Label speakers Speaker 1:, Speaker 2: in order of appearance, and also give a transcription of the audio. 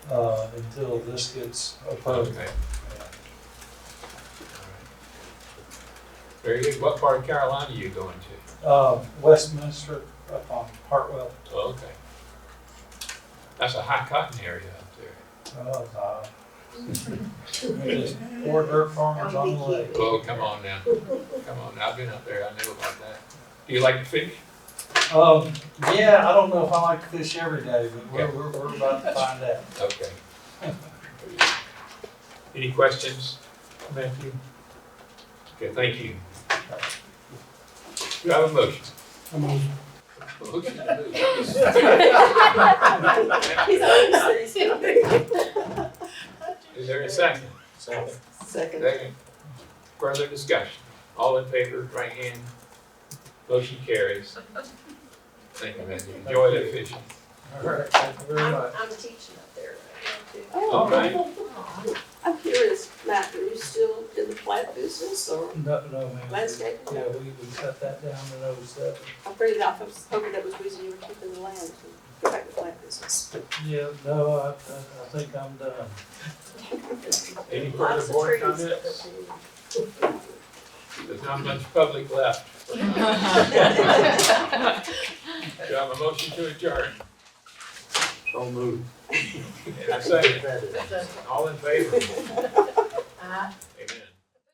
Speaker 1: uh, until this gets approved.
Speaker 2: Okay. Very good. What part of Carolina are you going to?
Speaker 1: Uh, Westminster up on Hartwell,
Speaker 2: Oh, okay. That's a high cotton area up there.
Speaker 1: uh, uh, there's four dirt farmers on the lake.
Speaker 2: Oh, come on now. Come on. I've been up there. I know about that. Do you like to fish?
Speaker 1: Um, yeah, I don't know if I like to fish every day, but we're,
Speaker 2: Okay.
Speaker 1: we're, we're about to find out.
Speaker 2: Okay. Any questions, Matthew? Okay, thank you. Do I have a motion? Motion to move. Is there a second?
Speaker 1: So,
Speaker 3: Second.
Speaker 2: Second. Further discussion? All in favor, right hand. Motion carries. Thank you, Matthew. Enjoy that fishing.
Speaker 1: all right, thank you very
Speaker 4: I'm,
Speaker 1: much.
Speaker 4: I'm teaching up there right
Speaker 2: All right.
Speaker 4: now too.
Speaker 3: I'm curious, Matt, are you still in the plant business or
Speaker 1: No, no, man.
Speaker 3: landscaping?
Speaker 1: Yeah, we, we cut that down in oh seven.
Speaker 3: I'm pretty enough, I was hoping that was the reason you were keeping the land to go back to plant business.
Speaker 1: Yeah, no, I, I- I think I'm done.
Speaker 2: Any
Speaker 4: Lots
Speaker 2: further
Speaker 4: of
Speaker 2: board
Speaker 4: trees.
Speaker 2: comments? There's not much public left. Do I have a motion to adjourn?
Speaker 5: Don't move.
Speaker 2: And a second. All in favor?
Speaker 4: Uh,